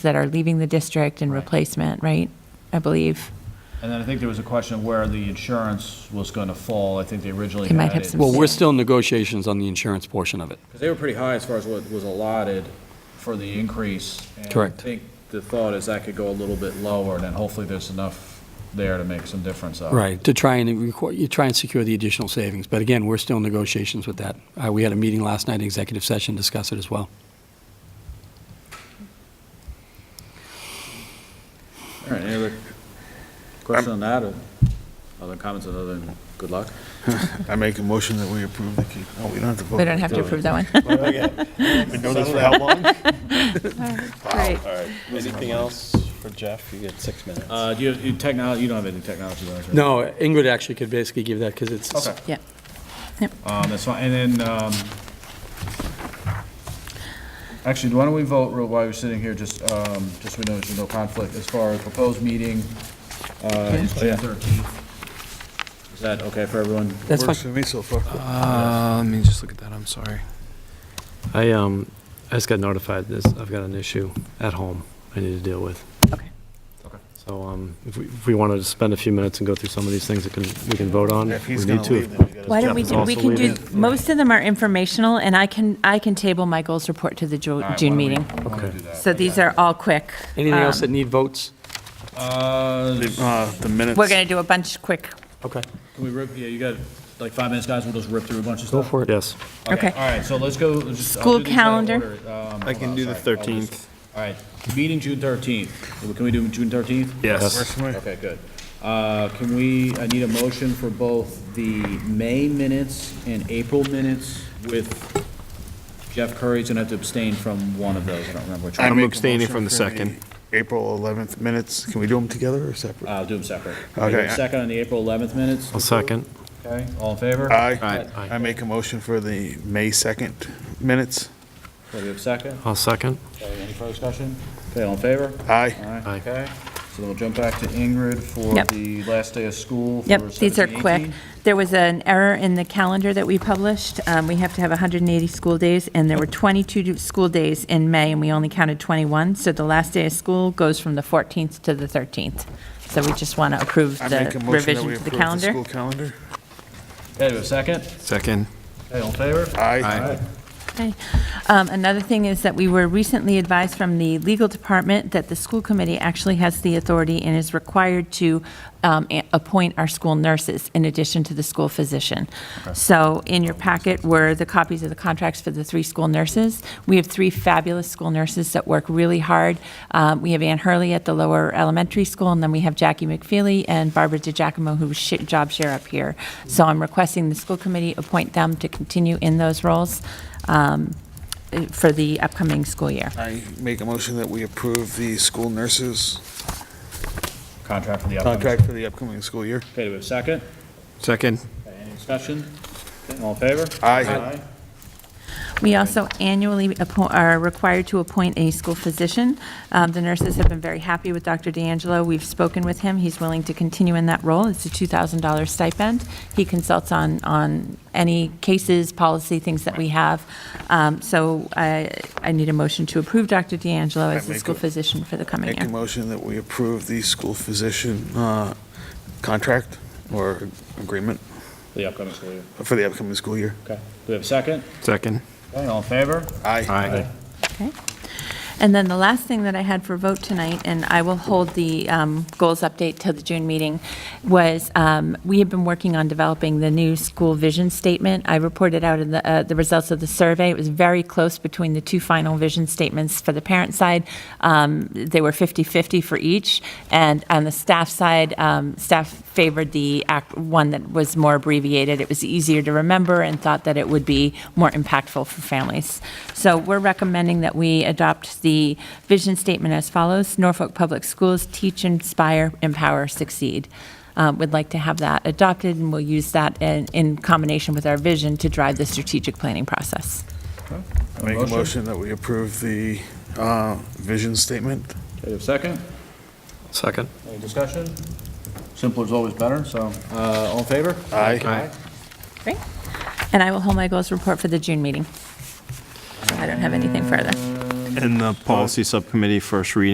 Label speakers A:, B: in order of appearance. A: that are leaving the district and replacement, right? I believe.
B: And then I think there was a question of where the insurance was going to fall. I think they originally
A: They might
B: had
A: have
B: it-
A: some-
C: Well, we're still in negotiations on the insurance portion of it.
B: Because they were pretty high as far as what was allotted for the increase. and
C: Correct.
B: I think the thought is that could go a little bit lower, and then hopefully there's enough there to make some difference up.
C: Right, to try and, requ- you try and secure the additional savings. But again, we're still in negotiations with that. Uh, We had a meeting last night, executive session, discuss it as well.
B: All right, any other question on that, or other comments other than good luck?
D: I make a motion that we approve the, key- oh, we don't have to vote.
A: We don't have to approve that one.
D: We've been doing this for how long?
A: Great.
D: All right. Anything else for Jeff? You get six minutes.
B: Uh, do you, you technology, you don't have any technology, do you?
C: No, Ingrid actually could basically give that because it's.
B: Okay.
A: Yeah.
B: Um, that's fine, and then, um, actually, why don't we vote real while we're sitting here, just, um, just so we know there's no conflict, as far as proposed meeting, uh, is June thirteenth. Is that okay for everyone?
C: That's
D: Works
C: fine.
D: for me so far.
E: Uh, let me just look at that, I'm sorry.
F: I, um, I just got notified this, I've got an issue at home I need to deal with.
A: Okay.
B: Okay.
F: So, um, if we, if we wanted to spend a few minutes and go through some of these things that can, we can vote on,
D: If
F: we
D: he's
F: need
D: gonna
F: to.
D: leave, then we gotta.
A: Why don't we
F: Jeff is
A: do, we
F: also
A: can do,
F: leaving.
A: most of them are informational, and I can, I can table Michael's report to the Ju-
B: All right,
A: June
B: why don't we-
A: meeting.
B: why don't we
F: Okay.
B: do that?
A: So these are all quick.
C: Anything else that
A: Um,
C: need votes?
B: Uh,
D: Uh, the minutes.
A: We're going to do a bunch quick.
C: Okay.
B: can we rip, yeah, you got like five minutes, guys, we'll just rip through a bunch of
F: Go
B: stuff?
F: for it, yes.
A: Okay.
B: All right, so let's go, let's just. I'll
A: School
B: do these out of
A: calendar.
B: order. Um,
E: I
B: hold
E: can
B: on,
E: do the
B: sorry. I'll just-
E: 13th.
B: All right, meeting June thirteenth, can we do June thirteenth?
E: Yes.
B: Okay, good. Uh, Can we, I need a motion for both the May minutes and April minutes with Jeff Curry's going to have to abstain from one of those, I don't remember which
D: I
E: I'm
B: one.
D: make a
E: abstaining
D: motion
E: from the
D: for
E: second.
D: April 11th minutes. Can we do them together or separate?
B: I'll do them separate. Can I get a
D: Okay.
B: Second on the April 11th minutes,
F: I'll second.
B: okay, all in favor?
D: Aye.
F: Aye.
D: I make a motion for the May 2nd minutes.
B: So we have a second,
F: I'll second.
B: Okay, any further discussion? Okay, all in favor?
D: Aye.
B: All right,
F: Aye.
B: okay. So then we'll jump back to Ingrid for
A: Yep.
B: the last day of school for
A: Yep, these are
B: 17,
A: quick.
B: 18.
A: There was an error in the calendar that we published. Um, We have to have 180 school days, and there were 22 do- school days in May, and we only counted 21. So the last day of school goes from the 14th to the 13th. So we just want to approve
D: I make
A: the
D: a motion that
A: revision
D: we
A: to the
D: approve the
A: calendar.
D: school calendar.
B: Okay, do we have a second?
E: Second.
B: Okay, all in favor?
D: Aye.
A: Okay. Um, Another thing is that we were recently advised from the legal department that the school committee actually has the authority and is required to um, a- appoint our school nurses in addition to the school physician. So in your packet were the copies of the contracts for the three school nurses. We have three fabulous school nurses that work really hard. Um, We have Ann Hurley at the lower elementary school, and then we have Jackie McFeely and Barbara DiGiacomo, who sh- job share up here. So I'm requesting the school committee appoint them to continue in those roles um, eh, for the upcoming school year.
D: I make a motion that we approve the school nurses
B: Contract for the upcoming.
D: contract for the upcoming school year.
B: Okay, do we have a second?
E: Second.
B: Okay, Any discussion? Okay, All in favor?
D: Aye.
A: We also annually appo- are required to appoint a school physician. Um, The nurses have been very happy with Dr. D'Angelo. We've spoken with him. He's willing to continue in that role. It's a $2,000 stipend. He consults on, on any cases, policy, things that we have. Um, So I, I need a motion to approve Dr. D'Angelo as the
D: make
A: school
D: a-
A: physician for the coming
D: Make
A: year.
D: a motion that we approve the school physician uh, contract or agreement
B: For The upcoming school year.
D: for the upcoming school year.
B: Okay, do we have a second?
E: Second.
B: Okay, all in favor?
D: Aye.
A: Okay. And then the last thing that I had for vote tonight, and I will hold the um, goals update till the June meeting, was um, we have been working on developing the new school vision statement. I reported out in the, uh, the results of the survey. It was very close between the two final vision statements for the parent side. Um, They were 50-50 for each. And on the staff side, um, staff favored the act, one that was more abbreviated. It was easier to remember and thought that it would be more impactful for families. So we're recommending that we adopt the vision statement as follows. Norfolk Public Schools teach, inspire, empower, succeed. Uh, We'd like to have that adopted, and we'll use that in, in combination with our vision to drive the strategic planning process.
D: I Make a motion that we approve the uh, vision statement.
B: Okay, do we have a second?
F: Second.
B: Any discussion? Simpler is always better, so, uh, all in favor?
D: Aye.
F: Aye.
A: Great. And I will hold my goals report for the June meeting. I don't have anything further.
G: And the policy subcommittee first reading